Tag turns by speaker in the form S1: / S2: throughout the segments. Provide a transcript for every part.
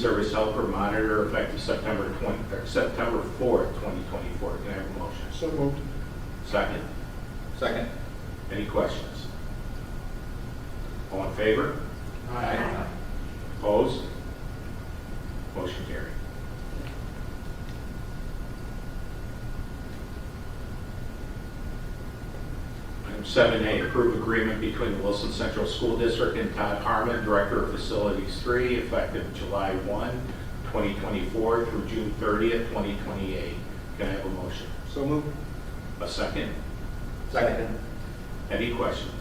S1: service helper monitor effective September 20, or September 4th, 2024. Can I have a motion?
S2: So moved.
S1: Second,
S3: Second.
S1: any questions? All in favor?
S3: Aye.
S1: Opposed? Motion carried. Item seven A, approve agreement between the Wilson Central School District and Todd Harmon, Director of Facilities Three, effective July 1, 2024 through June 30th, 2028. Can I have a motion?
S2: So moved.
S1: A second?
S3: Second.
S1: Any questions?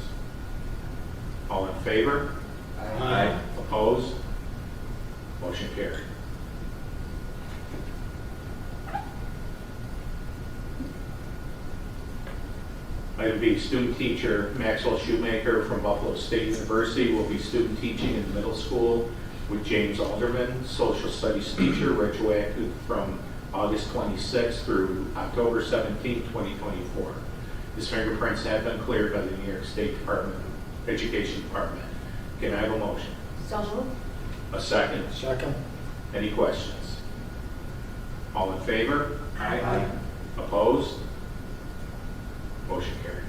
S1: All in favor?
S3: Aye.
S1: Opposed? Motion carried. Item B, student teacher Maxwell Shoemaker from Buffalo State University will be student teaching in middle school with James Alderman, social studies teacher, retroactive from August 26 through October 17, 2024. His fingerprints have been cleared by the New York State Department, Education Department. Can I have a motion?
S4: So moved.
S1: A second.
S2: Second.
S1: Any questions? All in favor?
S3: Aye.
S1: Opposed? Motion carried.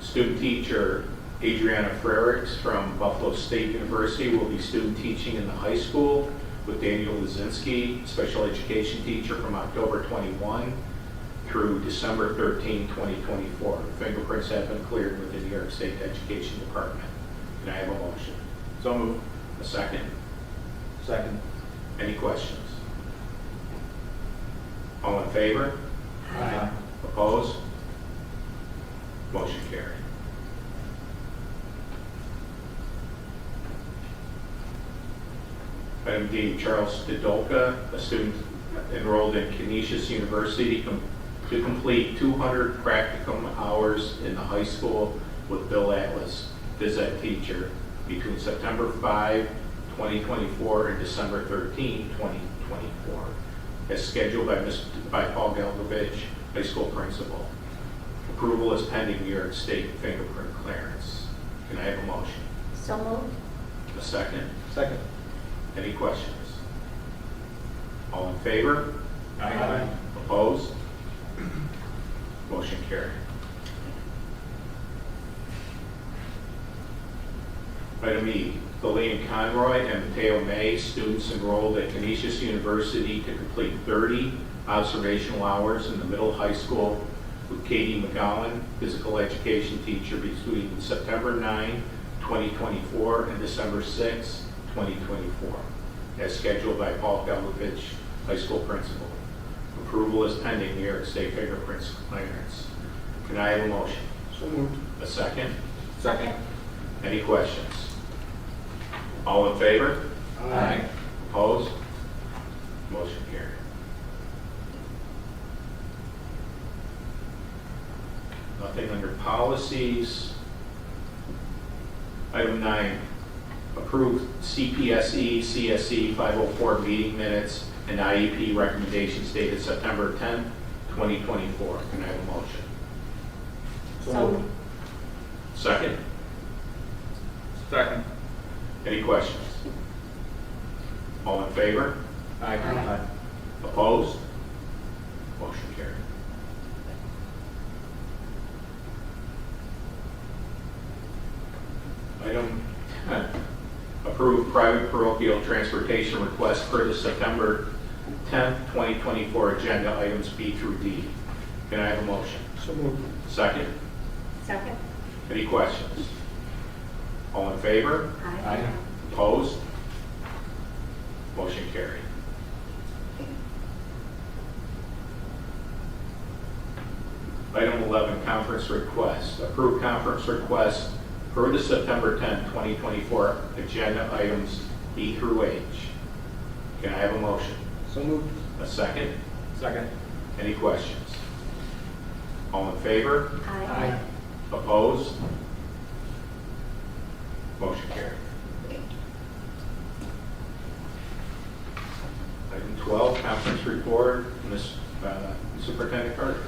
S1: Student teacher Adriana Frericks from Buffalo State University will be student teaching in the high school with Daniel Lazinski, special education teacher from October 21 through December 13, 2024. Fingerprints have been cleared with the New York State Education Department. Can I have a motion?
S3: So moved.
S1: A second?
S3: Second.
S1: Any questions? All in favor?
S3: Aye.
S1: Opposed? Motion carried. Item D, Charles Didolka, a student enrolled in Canisius University, com- to complete 200 practicum hours in the high school with Bill Atlas, phys ed teacher, between September 5, 2024 and December 13, 2024, as scheduled by Ms., by Paul Galgovich, high school principal. Approval is pending New York State fingerprint clearance. Can I have a motion?
S4: So moved.
S1: A second?
S3: Second.
S1: Any questions? All in favor?
S3: Aye.
S1: Opposed? Motion carried. Item E, Lillian Conroy and Mateo May, students enrolled at Canisius University to complete 30 observational hours in the middle high school with Katie McGowan, physical education teacher between September 9, 2024 and December 6, 2024, as scheduled by Paul Galvovich, high school principal. Approval is pending New York State fingerprints clearance. Can I have a motion?
S2: So moved.
S1: A second?
S3: Second.
S1: Any questions? All in favor?
S3: Aye.
S1: Opposed? Motion carried. Nothing under policies. Item nine, approve CPSE, CSE 504 meeting minutes and IEP recommendations dated September 10th, 2024. Can I have a motion?
S4: So moved.
S1: Second?
S3: Second.
S1: Any questions? All in favor?
S3: Aye. Aye.
S1: Opposed? Motion carried. Item 10, approve private parochial transportation request per the September 10th, 2024 agenda items B through D. Can I have a motion?
S2: So moved.
S1: Second,
S4: Second.
S1: any questions? All in favor?
S4: Aye.
S1: Opposed? Motion carried. Item 11, conference request. Approved conference request per the September 10, 2024 agenda items E through H. Can I have a motion?
S2: So moved.
S1: A second?
S3: Second.
S1: Any questions? All in favor?
S4: Aye.
S1: Opposed? Motion carried. Item 12, conference report, Ms. uh, Superintendent Carter.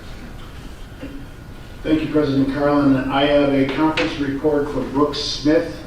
S5: Thank you, President Carlin. I have a conference report for Brooks Smith,